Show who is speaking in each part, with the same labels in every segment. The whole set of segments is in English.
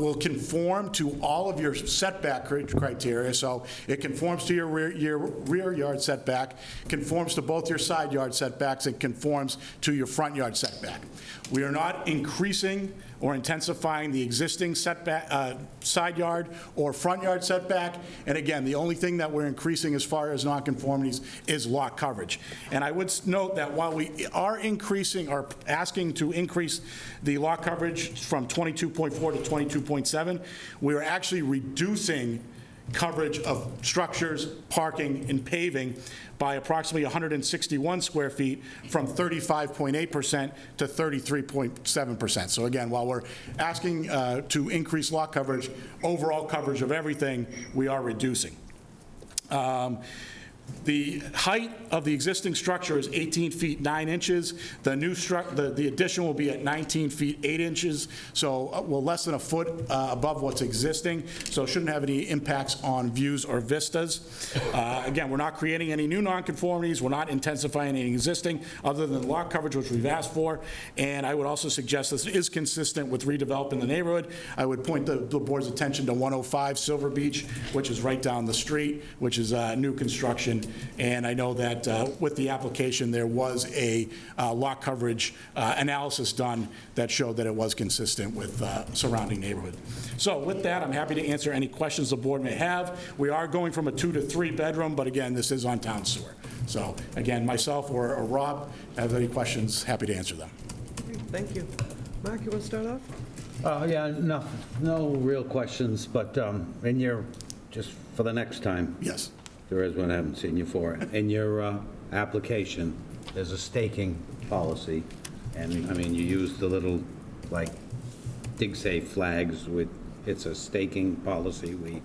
Speaker 1: will conform to all of your setback cri- criteria, so it conforms to your rear, your rear yard setback, conforms to both your side yard setbacks, and conforms to your front yard setback. We are not increasing or intensifying the existing setback, uh, side yard or front yard setback, and again, the only thing that we're increasing as far as nonconformities is lot coverage. And I would s- note that while we are increasing, or asking to increase the lot coverage from 22.4 to 22.7, we are actually reducing coverage of structures, parking, and paving by approximately 161 square feet from 35.8% to 33.7%. So again, while we're asking uh, to increase lot coverage, overall coverage of everything, we are reducing. Um, The height of the existing structure is 18 feet 9 inches. The new struc, the the addition will be at 19 feet 8 inches, so, uh, well, less than a foot uh, above what's existing, so it shouldn't have any impacts on views or vistas. Uh, Again, we're not creating any new nonconformities, we're not intensifying any existing, other than lot coverage, which we've asked for, and I would also suggest this is consistent with redeveloping the neighborhood. I would point the the board's attention to 105 Silver Beach, which is right down the street, which is uh, new construction. And I know that uh, with the application, there was a uh, lot coverage uh, analysis done that showed that it was consistent with uh, surrounding neighborhood. So with that, I'm happy to answer any questions the board may have. We are going from a two to three bedroom, but again, this is on town sewer. So again, myself or or Rob, have any questions, happy to answer them.
Speaker 2: Thank you. Mark, you want to start off?
Speaker 3: Uh, Yeah, no, no real questions, but um, in your, just for the next time,
Speaker 1: Yes.
Speaker 3: there is one I haven't seen you for. In your uh, application, there's a staking policy, and, I mean, you use the little, like, dig safe flags with, it's a staking policy, we,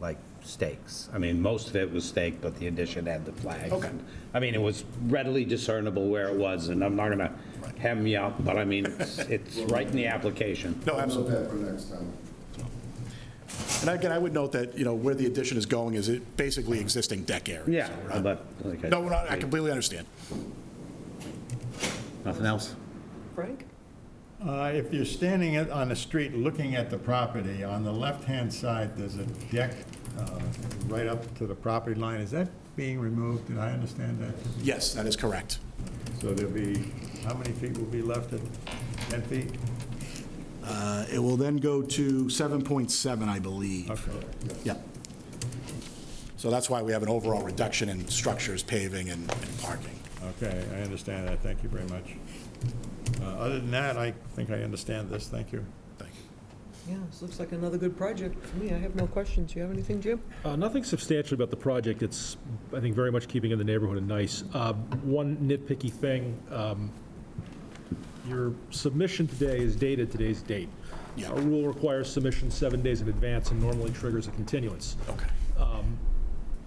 Speaker 3: like, stakes. I mean, most of it was staked, but the addition had the flags.
Speaker 1: Okay.
Speaker 3: I mean, it was readily discernible where it was, and I'm not gonna hem you up, but I mean, it's, it's right in the application.
Speaker 1: No, absolutely.
Speaker 4: Note that for next time.
Speaker 1: And again, I would note that, you know, where the addition is going is it basically existing deck area.
Speaker 3: Yeah,
Speaker 1: So we're not-
Speaker 3: but, okay.
Speaker 1: No, we're not- I completely understand.
Speaker 3: Nothing else?
Speaker 2: Frank?
Speaker 5: Uh, If you're standing at- on the street looking at the property, on the left-hand side, there's a deck uh, right up to the property line. Is that being removed? Did I understand that?
Speaker 1: Yes, that is correct.
Speaker 5: So there'll be, how many feet will be left at 10 feet?
Speaker 1: Uh, It will then go to 7.7, I believe.
Speaker 5: Okay.
Speaker 1: Yep. So that's why we have an overall reduction in structures, paving, and and parking.
Speaker 5: Okay, I understand that. Thank you very much. Uh, Other than that, I think I understand this. Thank you.
Speaker 1: Thank you.
Speaker 2: Yeah, this looks like another good project for me. I have no questions. You have anything, Jim?
Speaker 6: Uh, Nothing substantial about the project. It's, I think, very much keeping in the neighborhood and nice. Uh, One nitpicky thing, um, your submission today is dated today's date.
Speaker 1: Yeah.
Speaker 6: Our rule requires submission seven days in advance and normally triggers a continuance.
Speaker 1: Okay.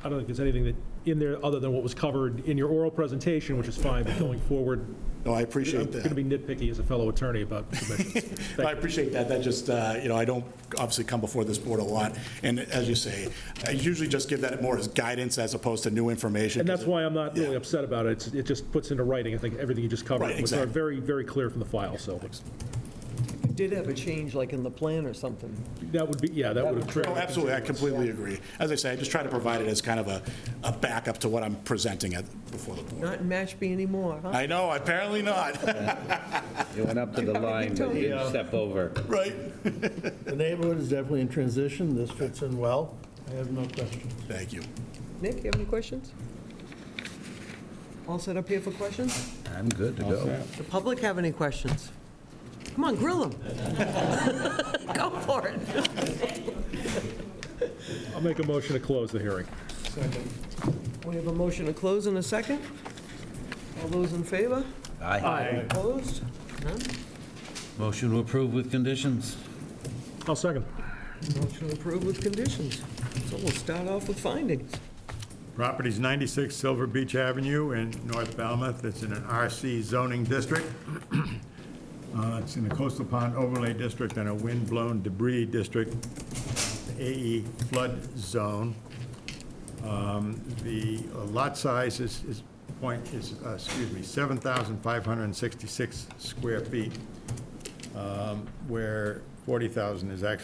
Speaker 6: I don't think there's anything that, in there, other than what was covered in your oral presentation, which is fine, but going forward,
Speaker 1: No, I
Speaker 6: I'm
Speaker 1: appreciate
Speaker 6: going to
Speaker 1: that.
Speaker 6: be nitpicky as a fellow attorney about submissions.
Speaker 1: I appreciate that. That just, uh, you know, I don't obviously come before this board a lot. And as you say, I usually just give that more as guidance as opposed to new information.
Speaker 6: And that's
Speaker 1: 'cause it-
Speaker 6: why I'm not really
Speaker 1: Yeah.
Speaker 6: upset about it. It's- It just puts into writing, I think, everything you just covered.
Speaker 1: Right,
Speaker 6: which are
Speaker 1: exactly.
Speaker 6: Very, very clear from the file, so.
Speaker 2: You did have a change, like in the plan or something.
Speaker 6: That would be, yeah, that would have triggered.
Speaker 1: Oh, absolutely, I completely agree. As I say, I just try to provide it as kind of a, a backup to what I'm presenting at, before the board.
Speaker 2: Not in Mashpee anymore, huh?
Speaker 1: I know, apparently not,
Speaker 3: You went up to the line, but you didn't step over.
Speaker 1: right?
Speaker 7: The neighborhood is definitely in transition, this fits in well. I have no questions.
Speaker 1: Thank you.
Speaker 2: Nick, you have any questions? All set up here for questions?
Speaker 3: I'm good to go.
Speaker 2: The public have any questions? Come on, grill them. Go for it.
Speaker 6: I'll make a motion to close the hearing.
Speaker 2: We have a motion to close in a second. All those in favor?
Speaker 3: Aye.
Speaker 2: Opposed? None?
Speaker 3: Motion to approve with conditions.
Speaker 6: I'll second.
Speaker 2: Motion approved with conditions. So we'll start off with findings.
Speaker 5: Property's 96 Silver Beach Avenue in North Falmouth. It's in an RC zoning district. Uh, It's in a coastal pond overlay district and a wind-blown debris district, AE flood zone. Um, The lot size is, is point, is, uh, excuse me, 7,566 square feet, um, where 40,000 is actually